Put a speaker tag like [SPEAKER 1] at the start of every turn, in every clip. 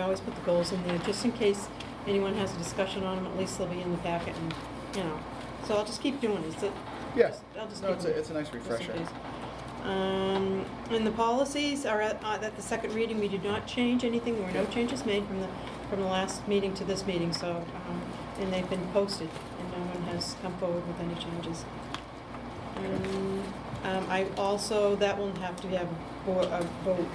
[SPEAKER 1] always put the goals in there, just in case anyone has a discussion on them, at least they'll be in the packet and, you know. So I'll just keep doing it. Is it-
[SPEAKER 2] Yes.
[SPEAKER 1] I'll just
[SPEAKER 2] No,
[SPEAKER 1] keep
[SPEAKER 2] it's a, it's a nice refresher.
[SPEAKER 1] Yes, it is. Um, And the policies are at, uh, at the second reading, we did not change anything, there were no changes made from the, from the last meeting to this meeting, so, um, and they've been posted, and no one has come forward with any changes. Um, um, I also, that will have to have bo- a vote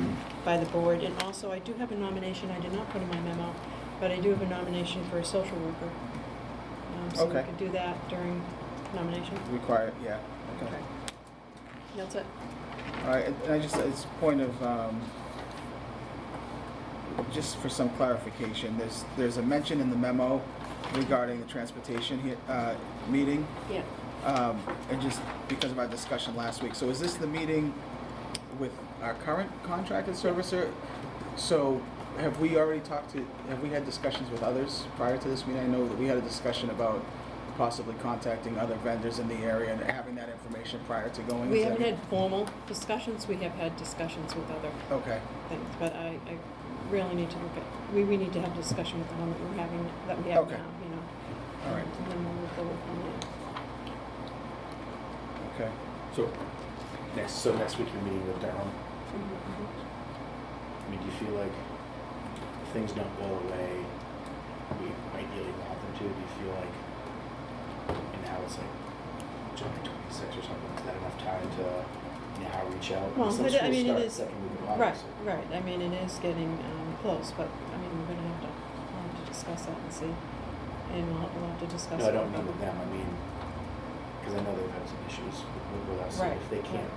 [SPEAKER 1] by the board, and also I do have a nomination, I did not put in my memo, but I do have a nomination for a social worker. Um, So we
[SPEAKER 2] Okay.
[SPEAKER 1] could do that during nomination.
[SPEAKER 2] Required, yeah. Okay.
[SPEAKER 1] Okay. That's it.
[SPEAKER 2] All right, and and I just, it's point of, um, just for some clarification, there's, there's a mention in the memo regarding the transportation he, uh, meeting,
[SPEAKER 1] Yeah.
[SPEAKER 2] um, and just because of our discussion last week. So is this the meeting with our current contracted servicer? So have we already talked to, have we had discussions with others prior to this meeting? I know that we had a discussion about possibly contacting other vendors in the area and having that information prior to going into.
[SPEAKER 1] We haven't had formal discussions, we have had discussions with other
[SPEAKER 2] Okay.
[SPEAKER 1] things, but I, I really need to look at, we, we need to have a discussion with the one that we're having, that we have
[SPEAKER 2] Okay.
[SPEAKER 1] now, you know.
[SPEAKER 2] All right.
[SPEAKER 1] And then we'll move forward from there.
[SPEAKER 2] Okay.
[SPEAKER 3] So, next, so next week you're meeting with Durham. Mm-hmm. I mean, do you feel like if things don't go away, we ideally want them to? Do you feel like, and now it's like July twenty-six or something, is that enough time to, you know, reach out?
[SPEAKER 1] Well,
[SPEAKER 3] Since
[SPEAKER 1] but I mean,
[SPEAKER 3] school
[SPEAKER 1] it
[SPEAKER 3] starts
[SPEAKER 1] is-
[SPEAKER 3] second week of August,
[SPEAKER 1] Right,
[SPEAKER 3] so-
[SPEAKER 1] right, I mean, it is getting, um, close, but, I mean, we're gonna have to, we'll have to discuss that and see, and we'll, we'll have to discuss.
[SPEAKER 3] No, I
[SPEAKER 1] it.
[SPEAKER 3] don't mean with them, I mean, because I know they've had some issues with- with us, and
[SPEAKER 1] Right,
[SPEAKER 3] if they can't,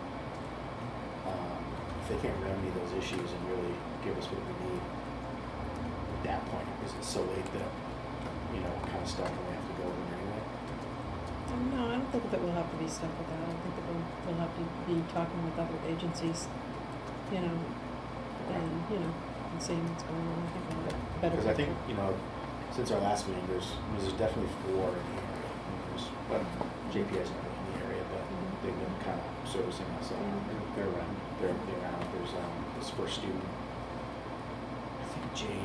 [SPEAKER 3] um, if they can't remedy those issues and really give us what we need, at that point, is it so late that, you know, we're kind of stuck and we have to go with them anyway?
[SPEAKER 1] Um, No, I don't think that we'll have to be stuck with that. I don't think that we'll, we'll have to be talking with other agencies, you know, and, you know, and seeing what's going on. I think we'll have a better
[SPEAKER 3] Because I think,
[SPEAKER 1] picture.
[SPEAKER 3] you know, since our last meeting, there's, I mean, there's definitely four in the area. I mean, There's, well, JPI's not really in the area, but
[SPEAKER 4] Mm-hmm.
[SPEAKER 1] Mhm.
[SPEAKER 3] they've been kind of servicing us, uh,
[SPEAKER 1] Mhm.
[SPEAKER 3] they're around, they're, they're around, there's, um, this first student. I think Jay,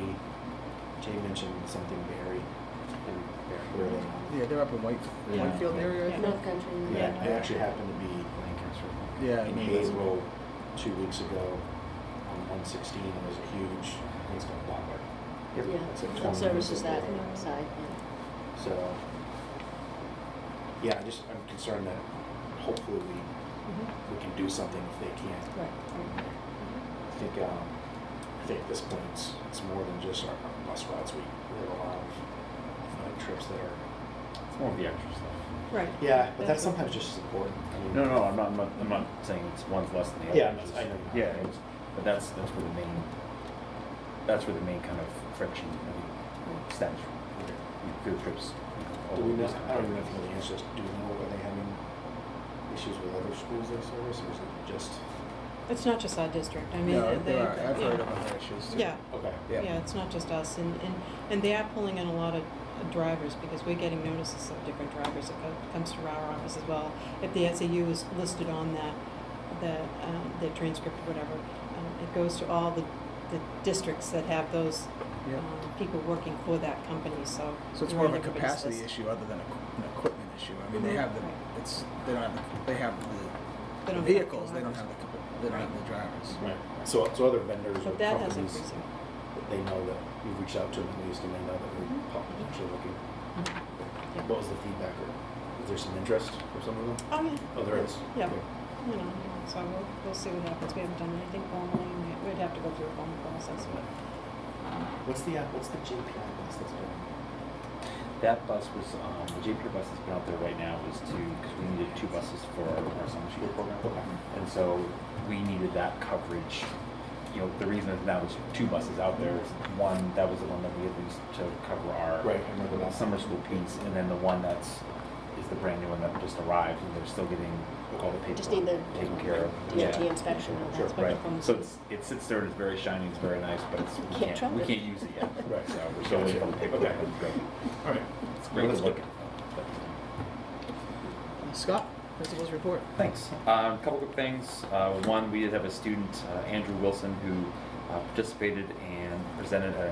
[SPEAKER 3] Jay mentioned something Barry, and Barry, where they
[SPEAKER 2] Yeah, they're up in White,
[SPEAKER 3] Yeah.
[SPEAKER 2] Whitefield area. I
[SPEAKER 1] Yeah.
[SPEAKER 2] think.
[SPEAKER 4] North Country.
[SPEAKER 3] Yeah, I actually happened to be
[SPEAKER 2] Yeah, I
[SPEAKER 3] in
[SPEAKER 2] mean, that's-
[SPEAKER 3] Haverhill two weeks ago on one sixteen, and there's a huge, I think it's called Butler. It's like
[SPEAKER 4] Yeah,
[SPEAKER 3] 20
[SPEAKER 4] services that
[SPEAKER 3] minutes away.
[SPEAKER 4] side,
[SPEAKER 3] So, yeah, I just, I'm concerned that hopefully we,
[SPEAKER 1] Mhm.
[SPEAKER 3] we can do something if they
[SPEAKER 1] Mm-hmm. Right, Mm-hmm.
[SPEAKER 3] can't.
[SPEAKER 1] right.
[SPEAKER 3] I think, um, I think at this point, it's, it's more than just our our bus routes, we, we have a lot of athletic trips that are,
[SPEAKER 5] It's more of the extra stuff.
[SPEAKER 1] Right.
[SPEAKER 3] yeah, but that's
[SPEAKER 1] what-
[SPEAKER 3] sometimes just as important. I mean,
[SPEAKER 5] No, no, I'm not, I'm not, I'm not saying it's one's less than the other.
[SPEAKER 3] Yeah,
[SPEAKER 5] It's
[SPEAKER 3] I know.
[SPEAKER 5] just- Yeah, it's, but that's, that's where the main, that's where the main kind of friction really stems from. Field trips. you know,
[SPEAKER 3] Do we
[SPEAKER 5] all
[SPEAKER 3] know,
[SPEAKER 5] these kind
[SPEAKER 3] I
[SPEAKER 5] of
[SPEAKER 3] don't even know if
[SPEAKER 5] things.
[SPEAKER 3] you know the answer, is, do we know, are they having issues with other schools they service, or is it just,
[SPEAKER 1] It's not just our district. I mean,
[SPEAKER 2] No,
[SPEAKER 1] they.
[SPEAKER 2] there are,
[SPEAKER 1] they-
[SPEAKER 2] I've
[SPEAKER 1] yeah.
[SPEAKER 2] heard of other issues too.
[SPEAKER 1] Yeah,
[SPEAKER 3] okay.
[SPEAKER 2] Yeah.
[SPEAKER 1] yeah, it's not just us, and, and, and they are pulling in a lot of uh, drivers, because we're getting notices of different drivers, it co- comes to our office as well. If the SAU is listed on that, the, um, the transcript or whatever, um, it goes to all the, the districts that have those,
[SPEAKER 2] Yeah.
[SPEAKER 1] um, people working for that company, so.
[SPEAKER 2] So it's
[SPEAKER 1] we're on
[SPEAKER 2] more of a
[SPEAKER 1] everybody's
[SPEAKER 2] capacity
[SPEAKER 1] list.
[SPEAKER 2] issue other than a qu- an equipment issue. I mean, they
[SPEAKER 1] Mhm.
[SPEAKER 2] have the,
[SPEAKER 1] Right.
[SPEAKER 2] it's, they don't have, the they have
[SPEAKER 1] They
[SPEAKER 2] the
[SPEAKER 1] don't have
[SPEAKER 2] vehicles, they don't
[SPEAKER 1] drivers.
[SPEAKER 2] have the, cap- they don't have the drivers.
[SPEAKER 3] Right, so, so other vendors or
[SPEAKER 1] But that has
[SPEAKER 3] companies,
[SPEAKER 1] increased.
[SPEAKER 3] they know that we've reached out to them at least, and they know that we're potentially looking.
[SPEAKER 1] Mm-hmm. Yeah.
[SPEAKER 3] Mm-hmm. What was the feedback, or is there some interest for some of them?
[SPEAKER 1] Oh, yeah.
[SPEAKER 3] Oh, there is?
[SPEAKER 1] Yeah, you know, so we'll, we'll see what happens. We haven't done anything formally, and we- we'd have to go through a formal process, but.
[SPEAKER 3] What's the, uh, what's the JPI bus that's been?
[SPEAKER 5] That bus was, um, the JP bus that's been out there right now is to, because we needed two buses for our, our summer school program. And so we needed that coverage. You know, the reason that that was two buses out there is one, that was the one that we had used to cover our
[SPEAKER 3] Right, I remember that.
[SPEAKER 5] summer school piece, and then the one that's, is the brand new one that just arrived, and they're still getting all the paperwork
[SPEAKER 4] Just need the
[SPEAKER 5] taken care of.
[SPEAKER 4] DOT
[SPEAKER 5] Yeah.
[SPEAKER 4] inspection and
[SPEAKER 3] Sure,
[SPEAKER 4] that's what.
[SPEAKER 5] Right, so it's, it sits there and it's very shiny, it's very nice, but it's,
[SPEAKER 4] Can't
[SPEAKER 5] we can't, we
[SPEAKER 4] trust it.
[SPEAKER 5] can't use it yet.
[SPEAKER 3] Right.
[SPEAKER 5] So we're still waiting on the paperwork.
[SPEAKER 3] Okay. All right.
[SPEAKER 5] It's great to
[SPEAKER 3] Let's go.
[SPEAKER 5] look at. but-
[SPEAKER 2] Uh, Scott, principal's report.
[SPEAKER 5] Thanks. Um, a couple quick things. Uh, one, we did have a student, uh, Andrew Wilson, who uh, participated and presented at